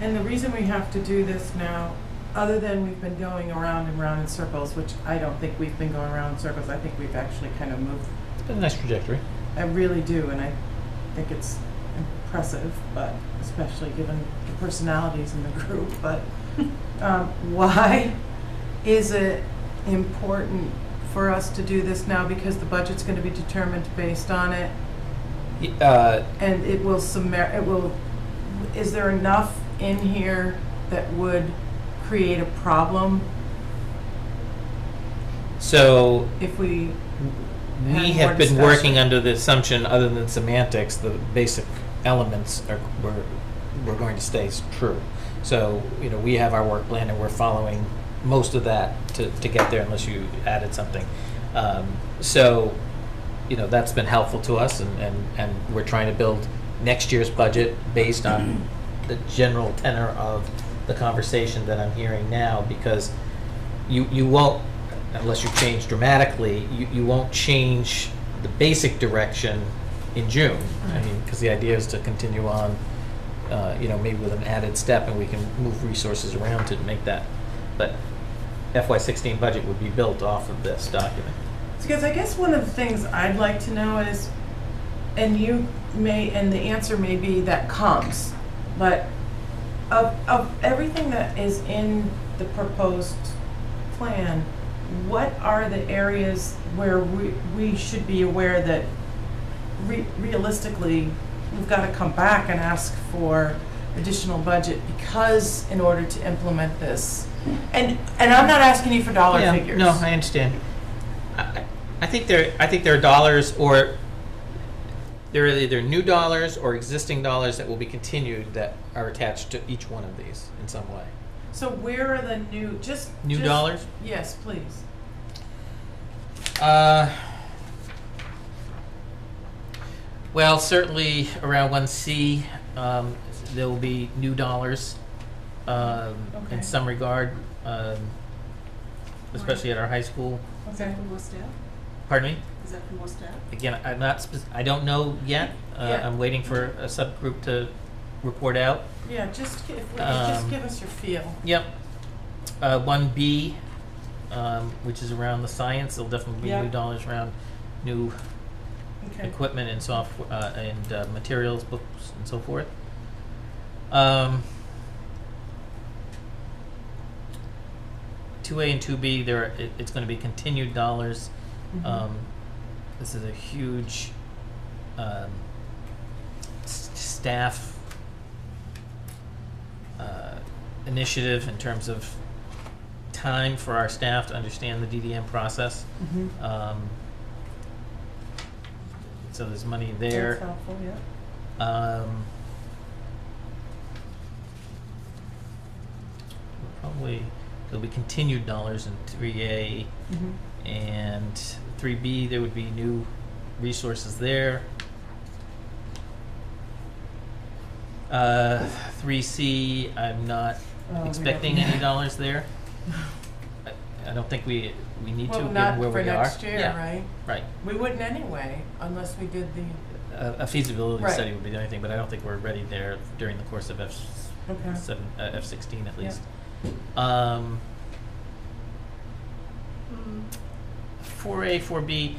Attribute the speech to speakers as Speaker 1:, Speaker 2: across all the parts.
Speaker 1: And the reason we have to do this now, other than we've been going around and round in circles, which I don't think we've been going around in circles, I think we've actually kind of moved.
Speaker 2: It's been a nice trajectory.
Speaker 1: I really do, and I think it's impressive, but especially given the personalities in the group, but um, why is it important for us to do this now? Because the budget's going to be determined based on it,
Speaker 2: Y- Uh,
Speaker 1: and it will summar, it will, is there enough in here that would create a problem
Speaker 2: so
Speaker 1: if we,
Speaker 2: we
Speaker 1: Have more
Speaker 2: have been
Speaker 1: discussion.
Speaker 2: working under the assumption, other than semantics, the basic elements are we're, we're going to stay s- true. So you know we have our work plan and we're following most of that to, to get there, unless you added something. Um, so you know that's been helpful to us, and, and, and we're trying to build next year's budget based on the general tenor of the conversation that I'm hearing now, because you, you won't, unless you change dramatically, you, you won't change the basic direction in June. I mean, because the idea is to continue on, uh, you know, maybe with an added step and we can move resources around to make that. But FY sixteen budget would be built off of this document.
Speaker 1: because I guess one of the things I'd like to know is, and you may, and the answer may be that comes, but of, of everything that is in the proposed plan, what are the areas where we, we should be aware that re- realistically, we've got to come back and ask for additional budget because in order to implement this, and, and I'm not asking you for dollar
Speaker 2: Yeah,
Speaker 1: figures.
Speaker 2: No, I understand. I- I, I think there, I think there are dollars or, there are either new dollars or existing dollars that will be continued that are attached to each one of these in some way.
Speaker 1: So where are the new, just.
Speaker 2: New
Speaker 1: just-
Speaker 2: dollars?
Speaker 1: Yes, please.
Speaker 2: Uh, Well, certainly around one C, um, there will be new dollars, um,
Speaker 1: Okay.
Speaker 2: in some regard, um, especially at our high school.
Speaker 3: Is that from West Ave?
Speaker 2: Pardon me?
Speaker 3: Is that from West Ave?
Speaker 2: Again, I'm not, spec- I don't know yet. Uh,
Speaker 1: Yeah.
Speaker 2: I'm waiting for a subgroup to report out.
Speaker 1: Yeah, just, gi- if, we- just
Speaker 2: Um,
Speaker 1: give us your feel.
Speaker 2: Yep. Uh, one B, um, which is around the science, there'll definitely be
Speaker 1: Yeah.
Speaker 2: new dollars around new
Speaker 1: Okay.
Speaker 2: equipment and software, uh, and uh, materials, books, and so forth. Um, two A and two B, there, are- it, it's gonna be continued dollars.
Speaker 1: Mhm.
Speaker 2: Um, this is a huge, um, s- staff, uh, initiative in terms of time for our staff to understand the DDM process.
Speaker 1: Mhm.
Speaker 2: Um, so there's money
Speaker 1: That's
Speaker 2: there.
Speaker 1: helpful, yeah.
Speaker 2: Um, probably there'll be continued dollars in 3A
Speaker 1: Mhm.
Speaker 2: and 3B. There would be new resources there. Uh, 3C, I'm not
Speaker 1: Oh, we don't
Speaker 2: expecting
Speaker 1: need
Speaker 2: any
Speaker 1: that.
Speaker 2: dollars there. I, I don't think we we need to
Speaker 1: Well,
Speaker 2: given
Speaker 1: not
Speaker 2: where
Speaker 1: for
Speaker 2: we are.
Speaker 1: next year,
Speaker 2: Yeah,
Speaker 1: right?
Speaker 2: right.
Speaker 1: We wouldn't anyway, unless we did the,
Speaker 2: a a feasibility
Speaker 1: Right.
Speaker 2: study would be the only thing, but I don't think we're ready there during the course of F
Speaker 1: okay.
Speaker 2: seven, uh, F sixteen at
Speaker 1: Yeah.
Speaker 2: least. Um, four A, four B,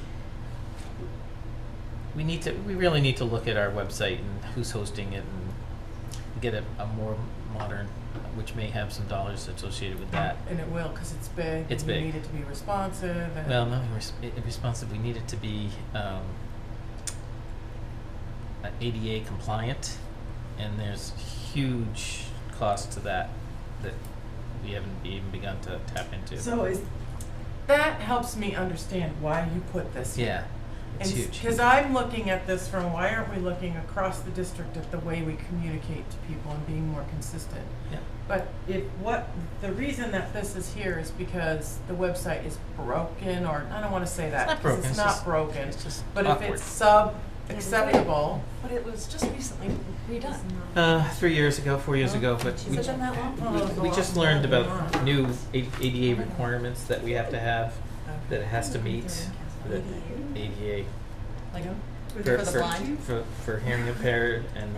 Speaker 2: we need to, we really need to look at our website and who's hosting it and get a, a more modern, which may have some dollars associated with that.
Speaker 1: And it will, because it's big.
Speaker 2: It's
Speaker 1: and we
Speaker 2: big.
Speaker 1: need it to be responsive and.
Speaker 2: Well, no, in res- i- responsive, we need it to be um, uh, ADA compliant, and there's huge cost to that that we haven't even begun to tap into.
Speaker 1: So is, that helps me understand why you put this here.
Speaker 2: Yeah, it's huge.
Speaker 1: Because I'm looking at this from, why aren't we looking across the district at the way we communicate to people and being more consistent?
Speaker 2: Yeah.
Speaker 1: But if what, the reason that this is here is because the website is broken, or, I don't wanna say that,
Speaker 2: not
Speaker 1: 'cause
Speaker 2: broken,
Speaker 1: it's
Speaker 2: it's
Speaker 1: not
Speaker 2: just-
Speaker 1: broken.
Speaker 2: It's just
Speaker 1: But if
Speaker 2: awkward.
Speaker 1: it's sub acceptable,
Speaker 3: But it was just recently redone.
Speaker 2: Uh, three years ago, four years ago, but
Speaker 3: Has
Speaker 2: we,
Speaker 3: it been that long?
Speaker 1: Oh,
Speaker 2: we just
Speaker 1: it's
Speaker 2: learned
Speaker 1: not
Speaker 2: about
Speaker 1: long.
Speaker 2: new A- ADA requirements that we have to have, that it has to meet, the ADA
Speaker 1: like,
Speaker 3: For
Speaker 2: for,
Speaker 3: the
Speaker 2: for-
Speaker 3: blind?
Speaker 2: for, for hearing impaired and